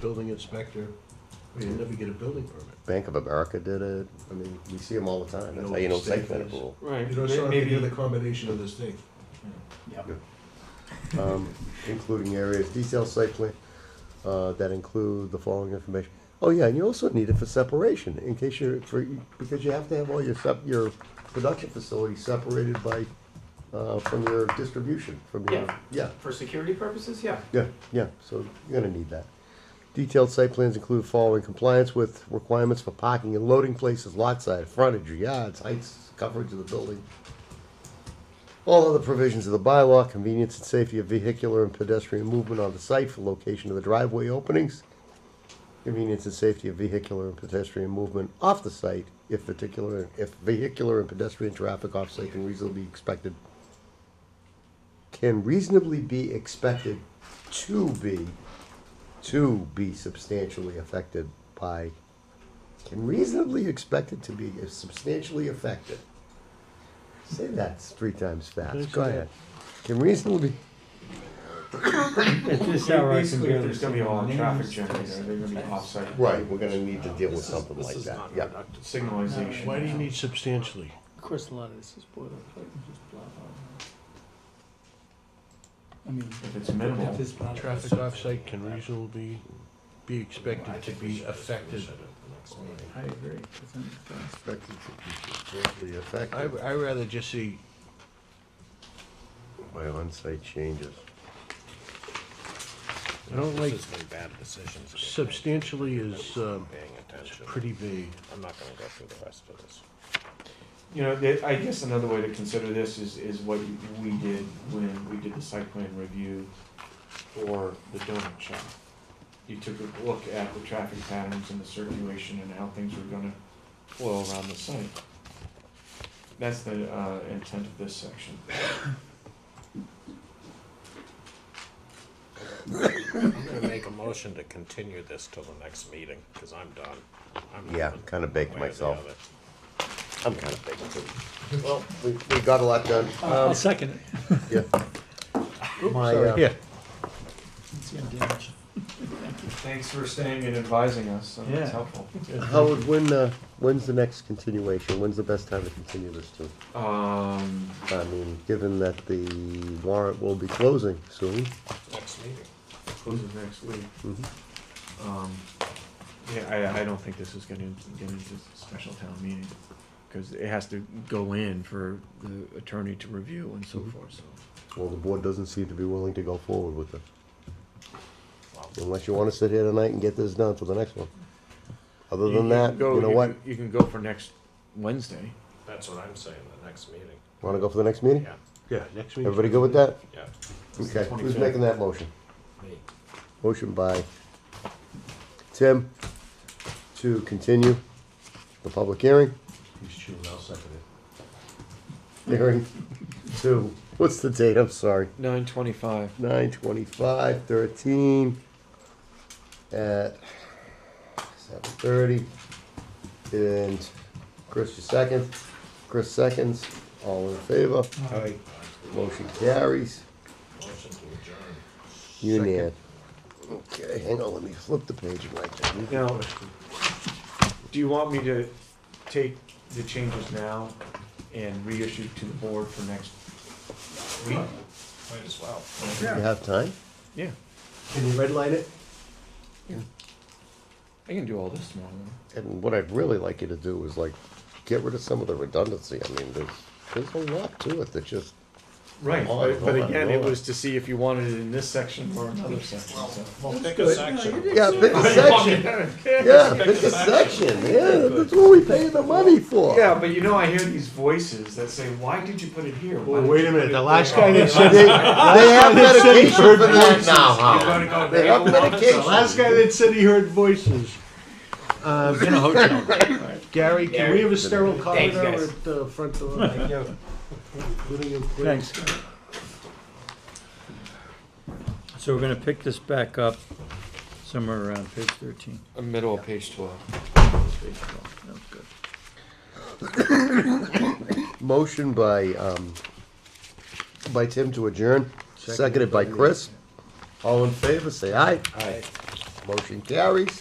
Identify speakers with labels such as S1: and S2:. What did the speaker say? S1: building inspector, we didn't ever get a building permit.
S2: Bank of America did it. I mean, we see them all the time. That's
S1: You
S2: how you
S1: know,
S2: know site
S1: state
S2: plan
S1: fees.
S2: approval.
S3: Right.
S1: You know,
S3: may-
S1: so
S3: maybe
S1: the combination of this thing.
S2: Um, including areas, detailed site plan, uh, that include the following information. Oh, yeah, and you also need it for separation, in case you're, for, because you have to have all your sep, your production facilities separated by, uh, from your distribution, from your,
S3: Yeah.
S2: yeah.
S3: for security purposes, yeah.
S2: Yeah, yeah, so you're gonna need that. Detailed site plans include following compliance with requirements for parking and loading places, lot size, frontage, yards, heights, coverage of the building. All other provisions of the bylaw, convenience and safety of vehicular and pedestrian movement on the site for location of the driveway openings. Convenience and safety of vehicular and pedestrian movement off the site if particular, if vehicular and pedestrian traffic off site can reasonably be expected can reasonably be expected to be to be substantially affected by can reasonably expected to be substantially affected. Say that three times fast. Go ahead. Can reasonably
S4: At this hour, I can
S3: Basically, if
S4: barely
S3: there's
S4: see
S3: gonna be a lot of traffic
S4: names.
S3: generated, they're gonna be off-site.
S2: right, we're gonna need to deal
S1: This
S2: with
S1: is-
S2: something
S1: this
S2: like
S1: is
S2: that.
S1: not
S2: Yeah.
S1: productive.
S3: Signalization.
S1: Why do you need substantially?
S4: Of course, a lot of this is boilerplate, and just blah, blah, blah. I mean.
S3: If it's minimal.
S4: if it's blah, blah,
S1: Traffic
S4: blah.
S1: offsite can reasonably be expected to be affected.
S4: I agree. It's in- it's-
S2: Expected to be substantially
S1: I,
S2: affected
S1: I rather just see,
S2: by onsite changes.
S1: I don't like,
S5: This is when bad decisions. get
S1: substantially is, um,
S5: made. Paying
S1: it's
S5: attention.
S1: pretty vague.
S5: I'm not gonna go through the rest of this.
S3: You know, the- I guess another way to consider this is, is what you- we did when we did the site plan review for the donut shop. You took a look at the traffic patterns and the circulation and how things were gonna flow around the site. That's the, uh, intent of this section.
S5: I'm gonna make a motion to continue this till the next meeting, cause I'm done. I'm not
S2: Yeah,
S5: done
S2: kinda
S5: one
S2: baked
S5: way or the
S2: myself.
S5: other.
S2: I'm kinda big too. Well, we, we got a lot done.
S4: I'll
S2: Um,
S4: second it.
S2: yeah. My, uh,
S1: Yeah,
S4: It's in damage.
S3: Thanks for staying and advising us, so
S4: Yeah.
S3: that's helpful.
S2: Howard, when, uh, when's the next continuation? When's the best time to continue this to?
S3: Um,
S2: I mean, given that the warrant will be closing soon.
S5: Next meeting.
S3: closes next week.
S2: Mm-hmm.
S3: Um, yeah, I, I don't think this is gonna get into special town meeting, because it has to go in for the attorney to review and
S2: Mm-hmm.
S3: so forth, so.
S2: Well, the board doesn't seem to be willing to go forward with it.
S5: Well,
S2: Unless you wanna sit here tonight and get this done for the next one. Other than that,
S3: can go-
S2: you know what?
S3: can- You can go for next Wednesday.
S5: That's what I'm saying, the next meeting,
S2: Wanna go for the next meeting?
S5: yeah,
S1: yeah, next week.
S2: Everybody good with that?
S5: yeah.
S3: It's the
S2: Okay, who's
S3: 25th.
S2: making that motion?
S5: Me.
S2: Motion by Tim to continue the public hearing.
S1: He's chewing, I'll second it.
S2: Hearing to, what's the date? I'm sorry.
S3: Nine twenty-five.
S2: nine twenty-five, thirteen, at seven thirty. And Chris, your second, Chris seconds, all in favor, motion carries,
S5: Motion to adjourn.
S2: you Nan. Okay, hang on, let me flip the page of my thing.
S3: Now, do you want me to take the changes now and reissue to the board for next week?
S5: Might as well.
S2: You have time?
S3: Yeah,
S2: Can you redline it?
S3: I can do all this tomorrow.
S2: And what I'd really like you to do is like, get rid of some of the redundancy, I mean, there's, there's a lot to it that just,
S3: Right,
S2: Oh,
S3: but, but
S2: Lord,
S3: again, it
S2: Lord.
S3: was to see if you wanted it in this section or another section, so.
S5: Well, pick a section.
S2: yeah, pick a section. Yeah, pick a section, yeah, that's what we paying the money for.
S3: Yeah, but you know, I hear these voices that say, why did you put it here? Why
S1: Well,
S3: did
S1: wait
S3: you
S1: a
S3: put
S1: minute,
S3: it
S1: the
S3: there?"
S1: last guy that said,
S2: They, they have medication for that now, Howard.
S3: You're gonna go
S2: They have
S3: bail on
S2: medication.
S1: the last guy that said he heard voices. Uh, in a hotel. Gary, can we have a sterile
S3: Thanks,
S1: corridor
S3: guys.
S1: at the front door? Including you, please.
S4: Thanks. So we're gonna pick this back up somewhere around page thirteen.
S3: Uh, Middle of page twelve.
S4: That was good.
S2: Motion by, um, by Tim to adjourn, seconded by Chris. All in favor, say aye. Motion carries.